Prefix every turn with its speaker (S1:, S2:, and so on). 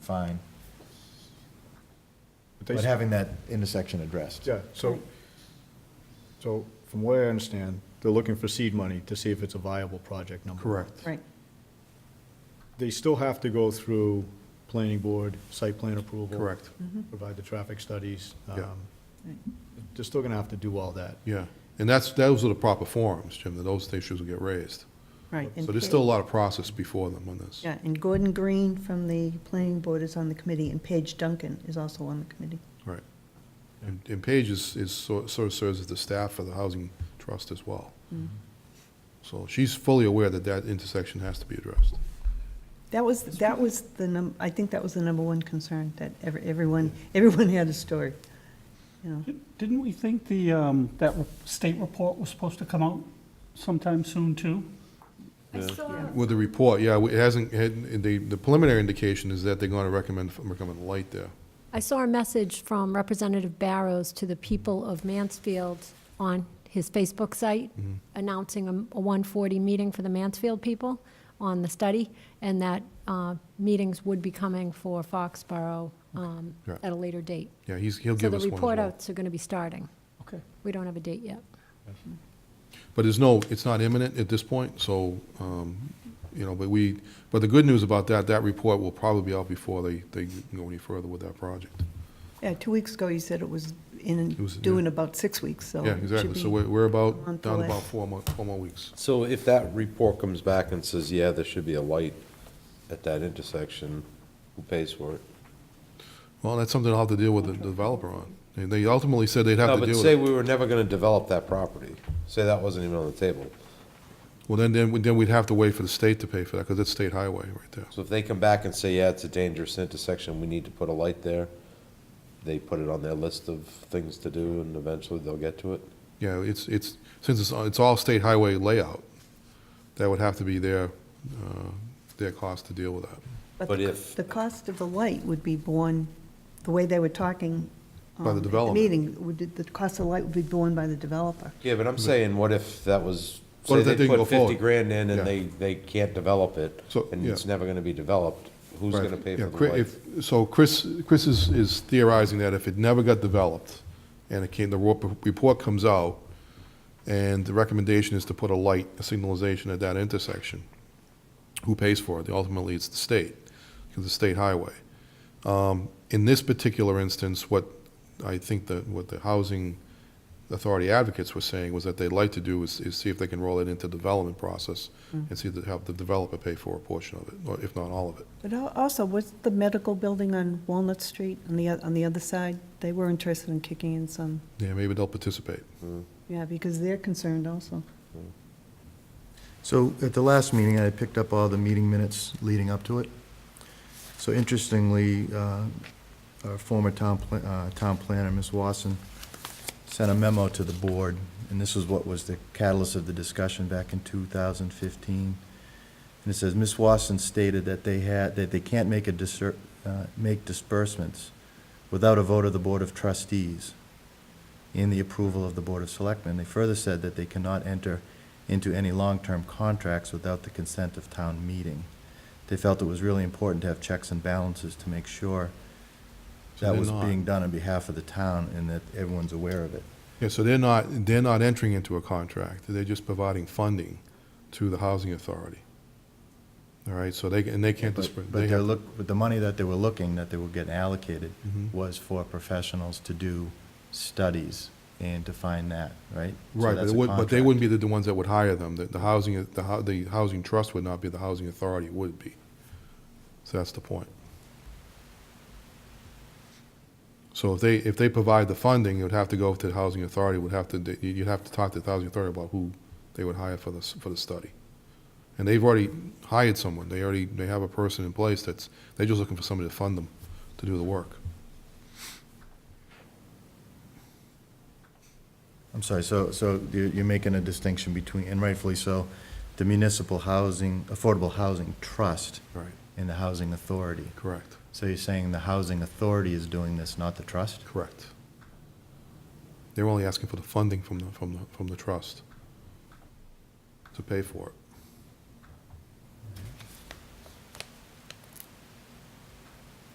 S1: fine,
S2: But they-
S1: but having that intersection addressed.
S2: Yeah, so, so from what I understand, they're looking for seed money to see if it's a viable project number. one.
S3: Correct.
S4: Right,
S2: They still have to go through planning board, site plan approval.
S3: Correct.
S2: Provide the traffic studies.
S3: Yeah.
S2: um,
S4: Right.
S2: They're still gonna have to do all that.
S3: Yeah. And that's, those are the proper forums, Jim, that those issues will get raised.
S4: right.
S3: So there's still a lot of process before them on this.
S4: Yeah, and Gordon Green from the planning board is on the committee, and Paige Duncan is also on the committee.
S3: Right. And, and Paige is, is sor- sort of serves as the staff for the Housing Trust as well. So she's fully aware that that intersection has to be addressed.
S4: That was, that was the num, I think that was the number one concern, that every- everyone, everyone had a story, you know.
S5: Didn't we think the, um, that re- state report was supposed to come out sometime soon, too?
S6: I saw,
S3: With the report, yeah, it hasn't, had- the, the preliminary indication is that they're going to recommend, recommend light there.
S6: I saw a message from Representative Barrows to the people of Mansfield on his Facebook site
S3: Mm-hmm.
S6: announcing a a 140 meeting for the Mansfield people on the study, and that uh, meetings would be coming for Foxborough um,
S3: Yeah.
S6: at a later date.
S3: Yeah, he's, he'll
S6: So
S3: give
S6: the
S3: us one as
S6: report
S3: well.
S6: outs are going to be starting.
S5: Okay.
S6: We don't have a date yet.
S3: But there's no, it's not imminent at this point, so, um, you know, but we, but the good news about that, that report will probably be out before they, they go any further with that project.
S4: Yeah, two weeks ago, you said it was in,
S3: It was-
S4: due in about six weeks, so.
S3: Yeah,
S4: Oh, it should
S3: exactly. So
S4: be-
S3: we're, we're about,
S4: month
S3: down
S4: away.
S3: about four more, four more weeks.
S7: So if that report comes back and says, yeah, there should be a light at that intersection, who pays for it?
S3: Well, that's something I'll have to deal with the developer on. And they ultimately said they'd
S7: No,
S3: have to
S7: but
S3: deal with
S7: say
S3: it.
S7: we were never gonna develop that property, say that wasn't even on the table.
S3: Well, then, then, we- then we'd have to wait for the state to pay for that, because it's state highway right there.
S7: So if they come back and say, yeah, it's a dangerous intersection, we need to put a light there, they put it on their list of things to do and eventually they'll get to it?
S3: Yeah, it's, it's, since it's, it's all state highway layout, that would have to be their, uh, their cost to deal with that.
S7: but
S4: the-
S7: if-
S4: The cost of the light would be borne, the way they were talking.
S3: By the
S4: um, at
S3: development.
S4: Meeting, would, the cost of the light would be borne by the developer.
S7: Yeah, but I'm saying, what if that was,
S3: What
S7: say
S3: if that
S7: they
S3: didn't go
S7: put fifty
S3: forward?
S7: grand in
S3: Yeah.
S7: and they, they can't develop it,
S3: So,
S7: and
S3: yeah.
S7: it's never gonna be developed, who's
S3: Right.
S7: gonna pay
S3: Yeah,
S7: for the
S3: Chri-
S7: light?
S3: if- So Chris, Chris is, is theorizing that if it never got developed, and it came, the ro- report comes out, and the recommendation is to put a light, a signalization at that intersection, who pays for it? Ultimately, it's the state, because it's a state highway. Um, In this particular instance, what I think that, what the housing authority advocates were saying was that they'd like to do is, is see if they can roll it into development process, and see to have the developer pay for a portion of it, or if not all of it.
S4: But al- also, was the medical building on Walnut Street, on the, oth- on the other side, they were interested in kicking in some,
S3: Yeah, maybe they'll participate.
S4: yeah, because they're concerned also.
S1: So at the last meeting, I picked up all the meeting minutes leading up to it. So interestingly, uh, our former town, pla- uh, town planner, Ms. Wasson, sent a memo to the board, and this is what was the catalyst of the discussion back in 2015. And it says, Ms. Wasson stated that they had, that they can't make a discer, uh, make disbursements without a vote of the Board of Trustees and the approval of the Board of Selectmen. They further said that they cannot enter into any long-term contracts without the consent of town meeting. They felt it was really important to have checks and balances to make sure
S3: So
S1: that
S3: they're
S1: was
S3: not.
S1: being done on behalf of the town and that everyone's aware of it.
S3: Yeah, so they're not, they're not entering into a contract, they're just providing funding to the housing authority. All right, so they, and they can't
S1: But
S3: disperse.
S1: but they're look, but the money that they were looking, that they were getting allocated
S3: Mhm.
S1: was for professionals to do studies and to find that, right? So
S3: Right, but
S1: that's
S3: it
S1: a
S3: would- but they
S1: contract.
S3: wouldn't be the- the ones that would hire them, the, the housing, the, hou- the housing trust would not be, the housing authority would be. So that's the point. So if they, if they provide the funding, it would have to go to the housing authority, would have to, they- you- you'd have to talk to the housing authority about who they would hire for the, s- for the study. And they've already hired someone, they already, they have a person in place that's, they're just looking for somebody to fund them, to do the work.
S1: I'm sorry, so, so you're, you're making a distinction between, and rightfully so, the municipal housing, affordable housing trust
S3: Right.
S1: and the housing authority.
S3: Correct,
S1: So you're saying the housing authority is doing this, not the trust?
S3: correct. They're only asking for the funding from the, from the, from the trust to pay for it.